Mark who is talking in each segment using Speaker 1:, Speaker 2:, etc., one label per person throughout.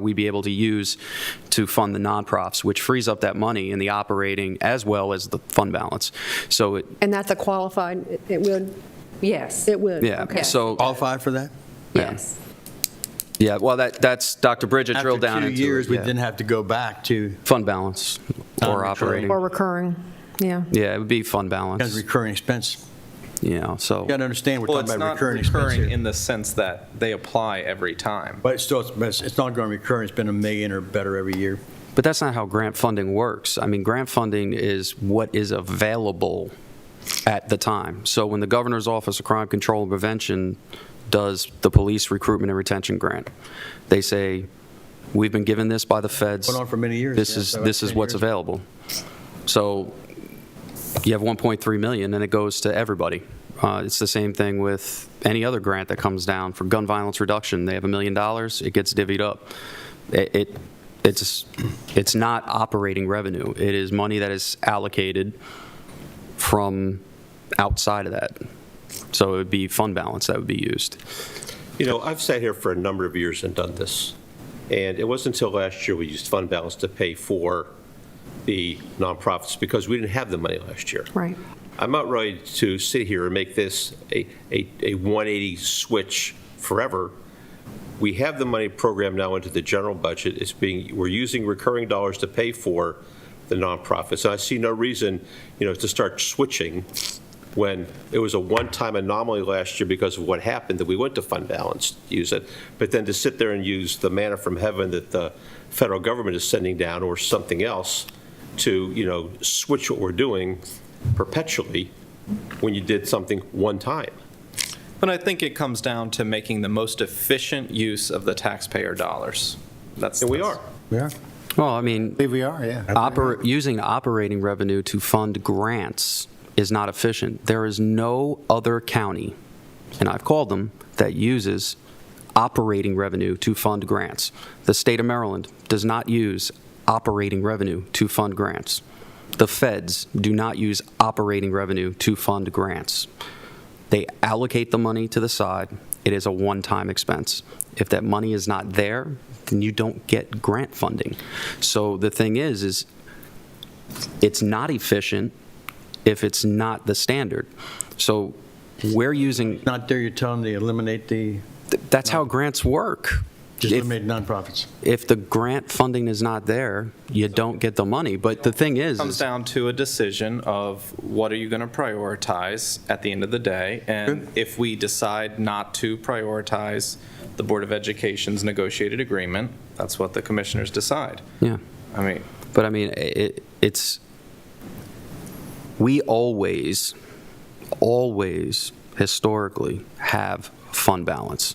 Speaker 1: we be able to use to fund the nonprofits, which frees up that money in the operating as well as the fund balance. So, it-
Speaker 2: And that's a qualified, it- it would,
Speaker 3: Yes,
Speaker 2: it would.
Speaker 1: yeah,
Speaker 2: okay.
Speaker 1: so,
Speaker 4: All five for that?
Speaker 3: yes.
Speaker 1: yeah, well, that, that's, Dr. Bridget drilled down into
Speaker 4: After
Speaker 1: it.
Speaker 4: two years, we
Speaker 1: yeah.
Speaker 4: didn't have to go back to,
Speaker 1: Fund balance or
Speaker 4: Non-recurring.
Speaker 1: operating.
Speaker 2: Or recurring, yeah.
Speaker 1: Yeah, it would be fund balance,
Speaker 4: as recurring expense.
Speaker 1: you know, so.
Speaker 4: You got to understand, we're
Speaker 5: Well,
Speaker 4: talking
Speaker 5: it's
Speaker 4: about
Speaker 5: not
Speaker 4: recurring expense
Speaker 5: recurring
Speaker 4: here.
Speaker 5: in the sense that they apply every time.
Speaker 4: But it's still, it's- but it's not going recurring, it's been a million or better every year.
Speaker 1: But that's not how grant funding works. I mean, grant funding is what is available at the time. So when the governor's office of crime control and prevention does the police recruitment and retention grant, they say, we've been given this by the feds.
Speaker 4: Went on for many years,
Speaker 1: This
Speaker 4: yeah,
Speaker 1: is,
Speaker 4: so
Speaker 1: this is
Speaker 4: about
Speaker 1: what's
Speaker 4: 10 years.
Speaker 1: available. So you have 1.3 million, and it goes to everybody. Uh, It's the same thing with any other grant that comes down for gun violence reduction. They have a million dollars, it gets divvied up. It, it- it's, it's not operating revenue. It is money that is allocated from outside of that. So it would be fund balance that would be used.
Speaker 6: You know, I've sat here for a number of years and done this, and it wasn't until last year we used fund balance to pay for the nonprofits because we didn't have the money last year.
Speaker 2: Right.
Speaker 6: I'm not ready to sit here and make this a, a, a 180 switch forever. We have the money programmed now into the general budget. It's being, we're using recurring dollars to pay for the nonprofits. And I see no reason, you know, to start switching when it was a one-time anomaly last year because of what happened, that we went to fund balance to use it. But then to sit there and use the manna from heaven that the federal government is sending down or something else to, you know, switch what we're doing perpetually when you did something one time.
Speaker 5: But I think it comes down to making the most efficient use of the taxpayer dollars. That's.
Speaker 6: And we
Speaker 5: that's-
Speaker 6: are.
Speaker 4: Yeah,
Speaker 1: Well, I mean,
Speaker 4: believe we are, yeah.
Speaker 1: Oper- using operating revenue to fund grants is not efficient. There is no other county, and I've called them, that uses operating revenue to fund grants. The state of Maryland does not use operating revenue to fund grants. The feds do not use operating revenue to fund grants. They allocate the money to the side. It is a one-time expense. If that money is not there, then you don't get grant funding. So the thing is, is it's not efficient if it's not the standard. So we're using,
Speaker 4: Not there, you're telling them to eliminate the,
Speaker 1: th- that's how grants work.
Speaker 4: just
Speaker 1: If-
Speaker 4: eliminate nonprofits.
Speaker 1: If the grant funding is not there, you don't get the money. But the thing is,
Speaker 5: Comes
Speaker 1: is
Speaker 5: down to a decision of what are you going to prioritize at the end of the day? And if we decide not to prioritize the Board of Education's negotiated agreement, that's what the commissioners decide.
Speaker 1: yeah.
Speaker 5: I mean,
Speaker 1: But I mean, it, it's, we always, always historically have fund balance.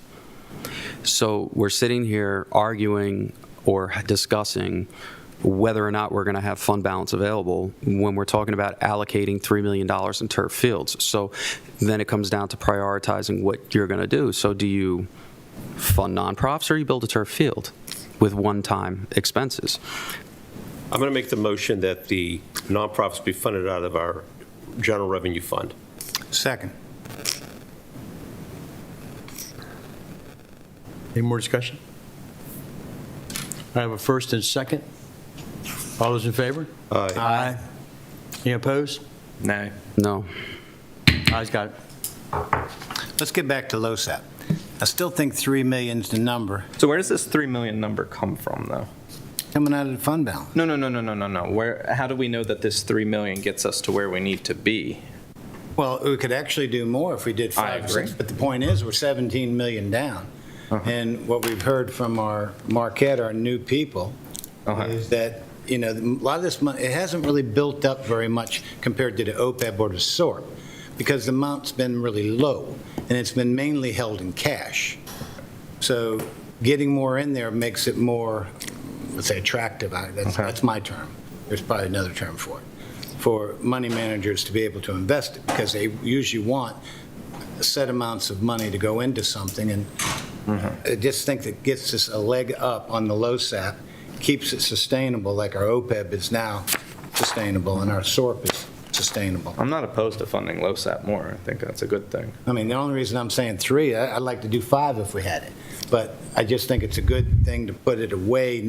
Speaker 1: So we're sitting here arguing or discussing whether or not we're going to have fund balance available when we're talking about allocating $3 million in turf fields. So then it comes down to prioritizing what you're going to do. So do you fund nonprofits or you build a turf field with one-time expenses?
Speaker 6: I'm going to make the motion that the nonprofits be funded out of our general revenue fund.
Speaker 4: Second. Any more discussion? I have a first and second. All those in favor?
Speaker 6: Aye.
Speaker 4: Aye. Any opposed?
Speaker 5: nay.
Speaker 1: No.
Speaker 4: Ayes got it.
Speaker 7: Let's get back to LoSAP. I still think 3 million's the number,
Speaker 5: So where does this 3 million number come from, though?
Speaker 7: coming out of the fund balance.
Speaker 5: No, no, no, no, no, no, no. Where, how do we know that this 3 million gets us to where we need to be?
Speaker 7: Well, we could actually do more if we did
Speaker 5: I
Speaker 7: five or six,
Speaker 5: agree. Uh-huh.
Speaker 7: but the point is, we're 17 million down. And what we've heard from our Marquette, our new people,
Speaker 5: Uh-huh.
Speaker 7: is that, you know, a lot of this money, it hasn't really built up very much compared to the OPEB or the SORP, because the amount's been really low, and it's been mainly held in cash. So getting more in there makes it more, let's say, attractive. I- That's, that's my term. There's probably another term for it for money managers to be able to invest it, because they usually want set amounts of money to go into something, and I just think that gets us a leg up on the LoSAP, keeps it sustainable, like our OPEB is now sustainable, and our SORP is sustainable.
Speaker 5: I'm not opposed to funding LoSAP more. I think that's a good thing.
Speaker 7: I mean, the only reason I'm saying three, I- I'd like to do five if we had it, But I just think it's a good thing to put it away